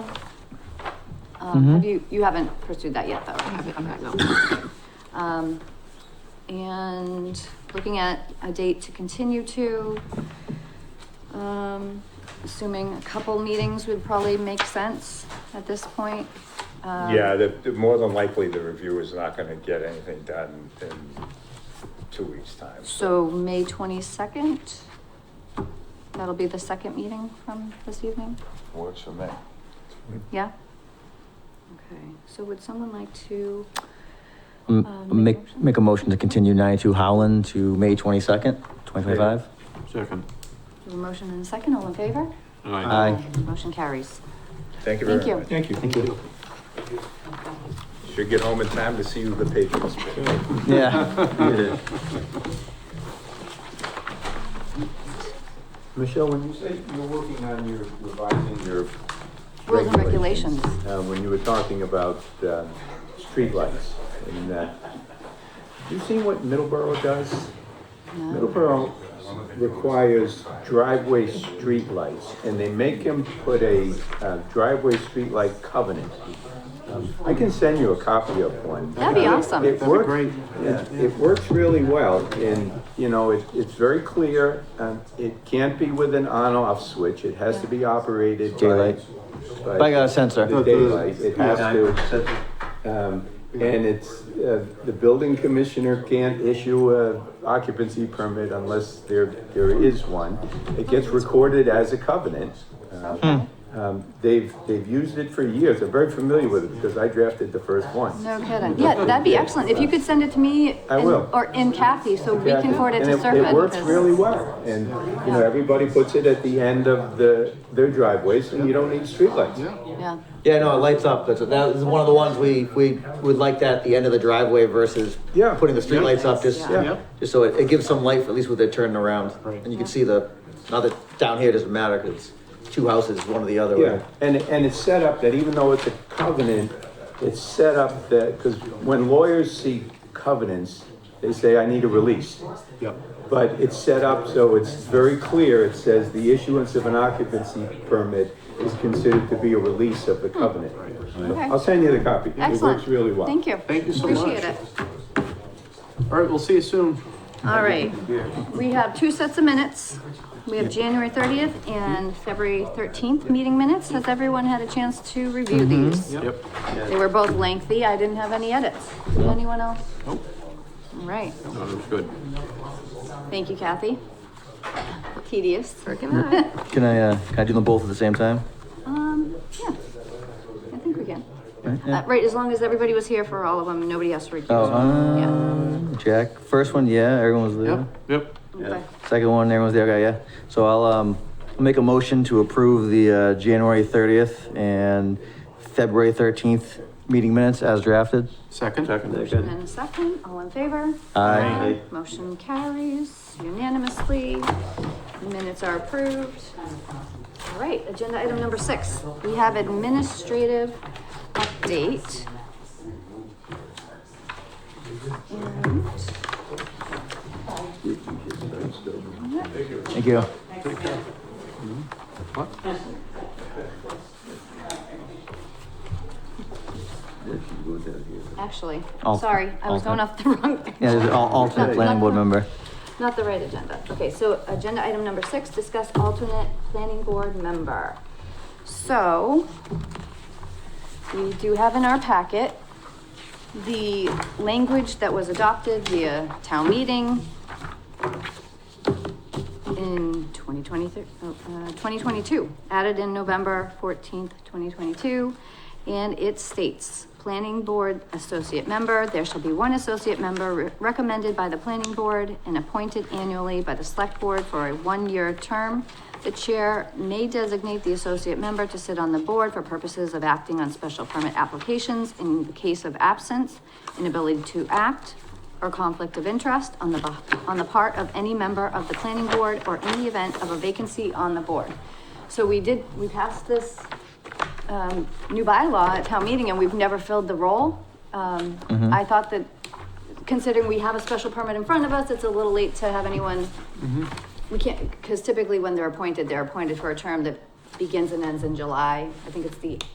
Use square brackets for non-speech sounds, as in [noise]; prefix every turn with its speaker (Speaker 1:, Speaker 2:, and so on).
Speaker 1: Um,
Speaker 2: Mm-hmm.
Speaker 1: have
Speaker 3: Mhm.
Speaker 1: you, you haven't pursued that yet though? have you? Okay, no. Um, and looking at a date to continue to, um, assuming a couple meetings would probably make sense at this point. Um,
Speaker 2: Yeah, the, the- more than likely, the review is not gonna get anything done in two weeks' time.
Speaker 1: So May twenty-second? That'll be the second meeting from this evening?
Speaker 2: Works for me.
Speaker 1: Yeah? Okay, so would someone like to? Uh,
Speaker 3: M-
Speaker 1: make a
Speaker 3: Make,
Speaker 1: motion?
Speaker 3: make a motion to continue 92 Howland to May 22nd, 2025?
Speaker 4: Second.
Speaker 1: Do a motion and a second, all in favor?
Speaker 3: Aye.
Speaker 1: Motion carries.
Speaker 2: Thank you
Speaker 1: Thank
Speaker 2: very
Speaker 1: you.
Speaker 2: much.
Speaker 4: Thank you. Thank you.
Speaker 2: Should get home in time to see the Patriots. play.
Speaker 3: Yeah.
Speaker 5: Michelle, when you say you're working on your revising your.
Speaker 1: Rules and regulations.
Speaker 5: Uh, when you were talking about, um, streetlights and that, you seen what Middleborough does?
Speaker 1: No,
Speaker 5: Middleborough requires driveway streetlights, and they make him put a uh, driveway streetlight covenant. Um, I can send you a copy of one. Uh,
Speaker 1: That'd be awesome.
Speaker 5: It
Speaker 1: That'd be
Speaker 5: works-
Speaker 4: great.
Speaker 5: It it works really well, and, you know, it, it's very clear, um, it can't be with an on-off switch, it has to be operated by.
Speaker 3: Daylight. By a sensor.
Speaker 5: The daylight, it has to, um, and it's, uh, the building commissioner can't issue a occupancy permit unless there, there is one. It gets recorded as a covenant. Um, um, They've, they've used it for years, they're very familiar with it because I drafted the first one.
Speaker 1: no kidding. Yeah, that'd be excellent. If you could send it to me.
Speaker 5: I
Speaker 1: and-
Speaker 5: will.
Speaker 1: Or in Kathy, so we can forward it to
Speaker 5: And
Speaker 1: Serpent.
Speaker 5: It works
Speaker 1: because-
Speaker 5: really well, and, you know, everybody puts it at the end of the, their driveways, and you don't need streetlights.
Speaker 1: Yeah,
Speaker 3: Yeah, no, it lights up. That's, that is one of the ones we, we would like that at the end of the driveway versus
Speaker 5: Yeah.
Speaker 3: putting the street
Speaker 4: Yeah.
Speaker 3: lights up, just,
Speaker 5: Yeah.
Speaker 3: just so it, it gives some light, for at least with their turning around.
Speaker 4: Right.
Speaker 3: And you can see the, now that down here doesn't matter, 'cause it's two houses, one or the other.
Speaker 5: Yeah, and, and it's set up that even though it's a covenant, it's set up that, because when lawyers see covenants, they say, I need a release.
Speaker 4: Yep.
Speaker 5: But it's set up so it's very clear, it says the issuance of an occupancy permit is considered to be a release of the covenant.
Speaker 1: Okay.
Speaker 5: I'll send you the copy, it
Speaker 1: excellent.
Speaker 5: works really well.
Speaker 1: Thank you.
Speaker 4: Thank you so
Speaker 1: Appreciate
Speaker 4: much.
Speaker 1: it.
Speaker 4: All right, we'll see you soon.
Speaker 1: All right, we have two sets of minutes. We have January thirtieth and February thirteenth meeting minutes. Has everyone had a chance to review
Speaker 5: Mm-hmm.
Speaker 1: these?
Speaker 4: Yep.
Speaker 1: They were both lengthy. I didn't have any edits. Did anyone else?
Speaker 4: Nope.
Speaker 1: All right,
Speaker 4: No, it was good.
Speaker 1: thank you, Kathy. Tedious.
Speaker 3: Can I, uh, can I do them both at the same time?
Speaker 1: Um, yeah, I think we can. Uh, right, as long as everybody was here for all of them, nobody has to recuse.
Speaker 3: Oh,
Speaker 1: Yeah.
Speaker 3: um, Jack, first one, yeah, everyone was there.
Speaker 4: Yep, yep.
Speaker 1: Okay.
Speaker 3: Second one, everyone's there, okay, yeah. So I'll, um, make a motion to approve the, uh, January thirtieth and February thirteenth meeting minutes as drafted.
Speaker 4: Second?
Speaker 1: Motion and a second, all in favor?
Speaker 3: Aye.
Speaker 1: Motion carries unanimously. Minutes are approved. All right, agenda item number six, we have administrative update. And-
Speaker 3: Thank you.
Speaker 1: Actually,
Speaker 3: Al-
Speaker 1: I'm sorry, I was going off the [laughs] wrong.
Speaker 3: Yeah, there's an al- alternate planning board member.
Speaker 1: Not the right agenda. Okay, so agenda item number six, discuss alternate planning board member. So we do have in our packet the language that was adopted via town meeting in 2023, oh, uh, 2022, added in November 14th, 2022. And it states, planning board associate member, there shall be one associate member re- recommended by the planning board and appointed annually by the select board for a one-year term. The chair may designate the associate member to sit on the board for purposes of acting on special permit applications in the case of absence, inability to act, or conflict of interest on the, beh- on the part of any member of the planning board or in the event of a vacancy on the board. So we did, we passed this, um, new bylaw at town meeting and we've never filled the role. Um, I thought that considering we have a special permit in front of us, it's a little late to have anyone. We can't, because typically when they're appointed, they're appointed for a term that begins and ends in July. I think it's the